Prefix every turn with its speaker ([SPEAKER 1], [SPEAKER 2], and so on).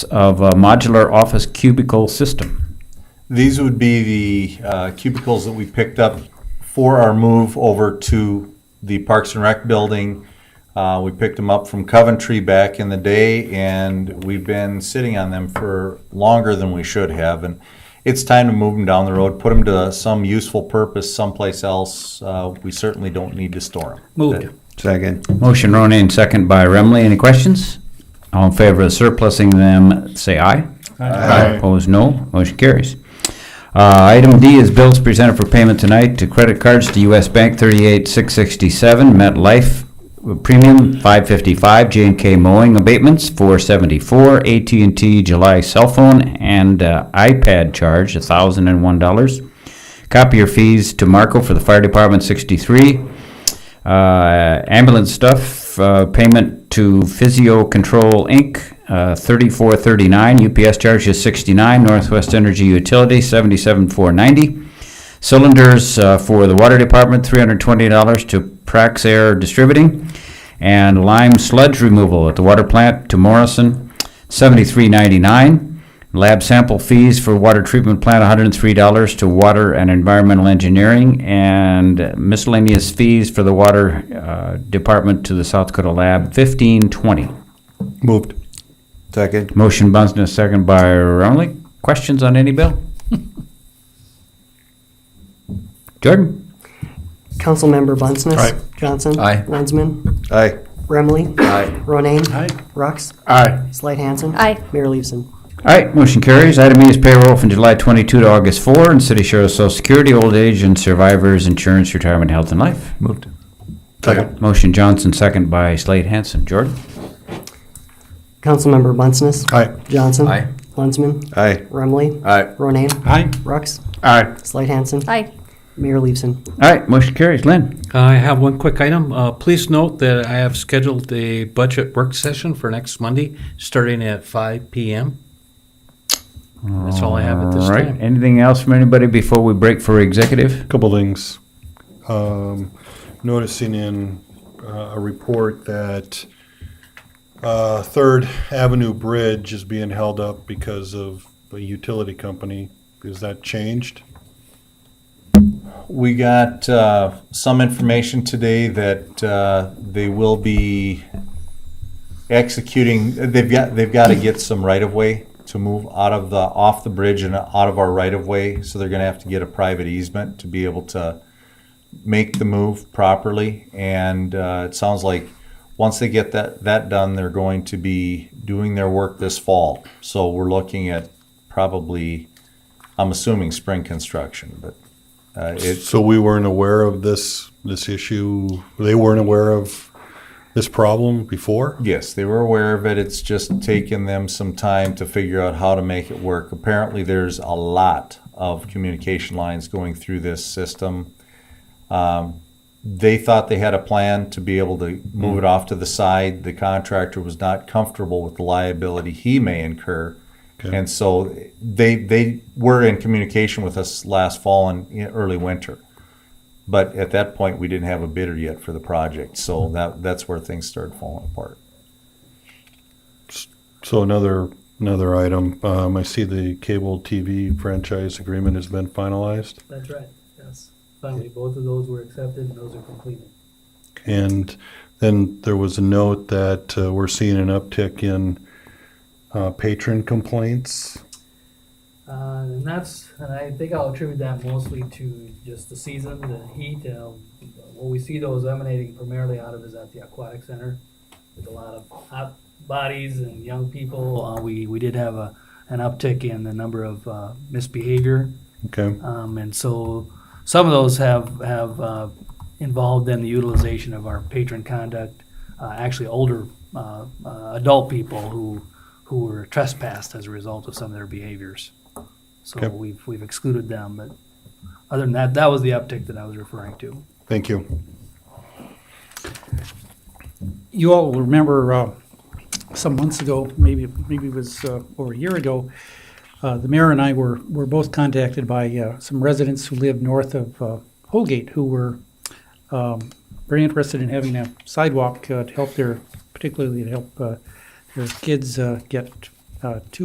[SPEAKER 1] of a modular office cubicle system.
[SPEAKER 2] These would be the uh, cubicles that we picked up for our move over to the Parks and Rec building. Uh, We picked them up from Coventry back in the day, and we've been sitting on them for longer than we should have. And it's time to move them down the road, put them to some useful purpose someplace else. Uh, We certainly don't need to store them.
[SPEAKER 1] Moved.
[SPEAKER 3] Second.
[SPEAKER 1] Motion Ronan, second by Remley. Any questions? All in favor of surplusing them, say aye.
[SPEAKER 3] Aye.
[SPEAKER 1] Opposed, no. Motion carries. Uh, Item D is bills presented for payment tonight to credit cards to U.S. Bank 38667, MetLife Premium 555, j and K Mowing Abatements 474, at and T July Cell Phone and uh, iPad Charge $1,001. Copier fees to Marco for the Fire Department 63, uh, ambulance stuff, uh, payment to Physio Control Inc., uh, thirty-four thirty-nine, UPS charges sixty-nine, Northwest Energy Utility, seventy-seven four ninety. Cylinders, uh, for the Water Department, three hundred twenty dollars to Prax Air Distributing. And lime sludge removal at the water plant to Morrison, seventy-three ninety-nine. Lab sample fees for water treatment plant, $103 to water and environmental engineering, and miscellaneous fees for the water uh, department to the South Dakota lab, 1520.
[SPEAKER 3] Moved. Second.
[SPEAKER 1] Motion Bunsen, second by Romley. Questions on any bill? Jordan?
[SPEAKER 4] Councilmember Bunceness.
[SPEAKER 3] Aye.
[SPEAKER 4] Johnson.
[SPEAKER 1] Aye.
[SPEAKER 4] Lensman.
[SPEAKER 3] Aye.
[SPEAKER 4] Remley.
[SPEAKER 3] Aye.
[SPEAKER 4] Ronayne.
[SPEAKER 3] Aye.
[SPEAKER 4] Rux.
[SPEAKER 3] Aye.
[SPEAKER 4] Slight Hansen.
[SPEAKER 5] Aye.
[SPEAKER 4] Mayor Leveson.
[SPEAKER 1] All right, motion carries. Item E is payroll from July 22 to August 4, and city share of social security, old age, and survivors insurance, retirement, health, and life.
[SPEAKER 3] Moved. Second.
[SPEAKER 1] Motion Johnson, second by Slade Hansen. Jordan?
[SPEAKER 4] Councilmember Bunceness.
[SPEAKER 3] Aye.
[SPEAKER 4] Johnson.
[SPEAKER 1] Aye.
[SPEAKER 4] Lensman.
[SPEAKER 3] Aye.
[SPEAKER 4] Remley.
[SPEAKER 3] Aye.
[SPEAKER 4] Ronayne.
[SPEAKER 1] Aye.
[SPEAKER 4] Rux.
[SPEAKER 3] Aye.
[SPEAKER 4] Slight Hansen.
[SPEAKER 5] Aye.
[SPEAKER 4] Mayor Leveson.
[SPEAKER 1] All right, motion carries. Lynn?
[SPEAKER 6] I have one quick item. Uh, Please note that I have scheduled a budget work session for next Monday, starting at 5 PM. That's all I have at this
[SPEAKER 1] All right.
[SPEAKER 6] time.
[SPEAKER 1] Anything else from anybody before we break for executive?
[SPEAKER 7] Couple things. Um, noticing in uh, a report that uh, Third Avenue Bridge is being held up because of a utility company. Is that changed?
[SPEAKER 2] We got uh, some information today that uh, they will be executing, they've got, they've got to get some right-of-way to move out of the, off the bridge and out of our right-of-way, so they're going to have to get a private easement to be able to make the move properly. And uh, it sounds like, once they get that, that done, they're going to be doing their work this fall. So we're looking at probably, I'm assuming spring construction, but uh, it,
[SPEAKER 7] So we weren't aware of this, this issue. They weren't aware of this problem before?
[SPEAKER 2] Yes, they were aware of it. It's just taken them some time to figure out how to make it work. Apparently, there's a lot of communication lines going through this system. Um, they thought they had a plan to be able to move it off to the side. The contractor was not comfortable with the liability he may incur.
[SPEAKER 7] Okay.
[SPEAKER 2] And so they, they were in communication with us last fall and in early winter. But at that point, we didn't have a bidder yet for the project. So that, that's where things started falling apart.
[SPEAKER 7] So another, another item, um, I see the cable TV franchise agreement has been finalized.
[SPEAKER 8] That's right, yes. Finally, both of those were accepted and those are completed.
[SPEAKER 7] And then there was a note that uh, we're seeing an uptick in uh, patron complaints.
[SPEAKER 8] Uh, and that's, and I think I'll attribute that mostly to just the season, the heat. Um, what we see those emanating primarily out of is at the aquatic center with a lot of hot bodies and young people. Uh, we, we did have a, an uptick in the number of uh, misbehavior
[SPEAKER 7] Okay,
[SPEAKER 8] Um, and so some of those have, have uh, involved in the utilization of our patron conduct, uh, actually older uh, uh, adult people who, who were trespassed as a result of some of their behaviors. So
[SPEAKER 7] Okay.
[SPEAKER 8] we've, we've excluded them, but other than that, that was the uptick that I was referring to.
[SPEAKER 7] thank you.
[SPEAKER 9] you all will remember uh, some months ago, maybe maybe it was uh, over a year ago, uh, the mayor and I were were both contacted by uh, some residents who live north of uh, Holgate who were um, very interested in having a sidewalk uh, to help their, particularly to help uh, their kids uh, get uh, two